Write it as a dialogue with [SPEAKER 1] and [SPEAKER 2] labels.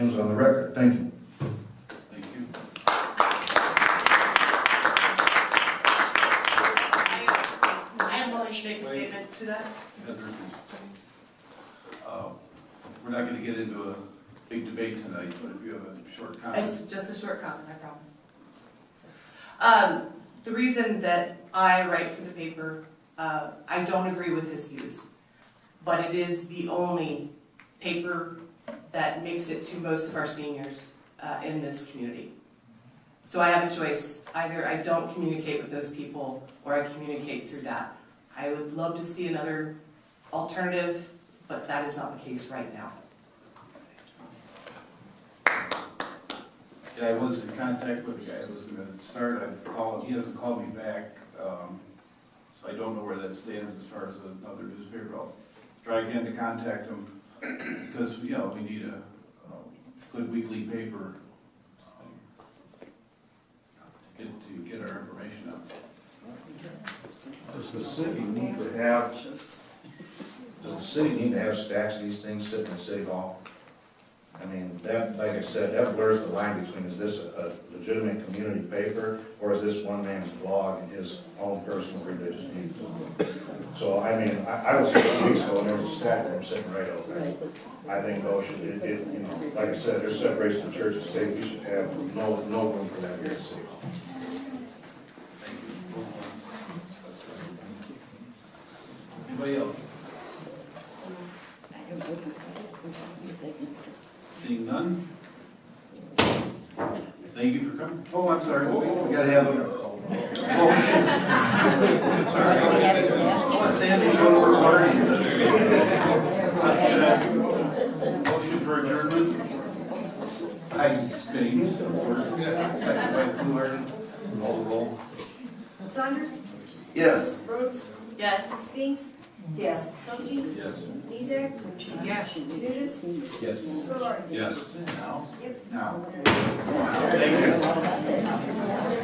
[SPEAKER 1] on the record. Thank you.
[SPEAKER 2] Thank you.
[SPEAKER 3] I am willing to make a statement to that.
[SPEAKER 2] Heather. Um, We're not gonna get into a big debate tonight, but if you have a short comment.
[SPEAKER 3] It's just a short comment, I promise. Um, the reason that I write for the paper, uh, I don't agree with his views, but it is the only paper that makes it to most of our seniors, uh, in this community. So I have a choice, either I don't communicate with those people, or I communicate through that. I would love to see another alternative, but that is not the case right now.
[SPEAKER 2] Yeah, I was in contact with the guy that was gonna start, I've called, he hasn't called me back, um, so I don't know where that stands as far as another newspaper. I'll try again to contact him, because, you know, we need a, a good weekly paper to get, to get our information out.
[SPEAKER 1] Does the city need to have, does the city need to have stacks of these things sitting in City Hall? I mean, that, like I said, that blurs the line between, is this a a legitimate community paper, or is this one man's blog and his own personal religious views? So, I mean, I, I was here two weeks ago, and there was a stack of them sitting right over there. I think Ocean, it, it, you know, like I said, there's separation of church and state, we should have no, no room for that here at City Hall.
[SPEAKER 2] Thank you. Anybody else? Seeing none? Thank you for coming. Oh, I'm sorry, we we gotta have a. Oh, sorry. Oh, Sandy, you go to her party. Motion for adjournment? I Spain, of course. Second by Fluharty. All roll.
[SPEAKER 4] Saunders,
[SPEAKER 2] Yes.
[SPEAKER 4] Rhodes,
[SPEAKER 3] Yes.
[SPEAKER 4] Spinks,
[SPEAKER 3] Yes.
[SPEAKER 4] Cochi,
[SPEAKER 2] Yes.
[SPEAKER 4] Deezer,
[SPEAKER 3] Yes.
[SPEAKER 4] Nudis,
[SPEAKER 2] Yes.
[SPEAKER 4] Florida.
[SPEAKER 2] Yes. Now?
[SPEAKER 4] Yep.
[SPEAKER 2] Now. Thank you.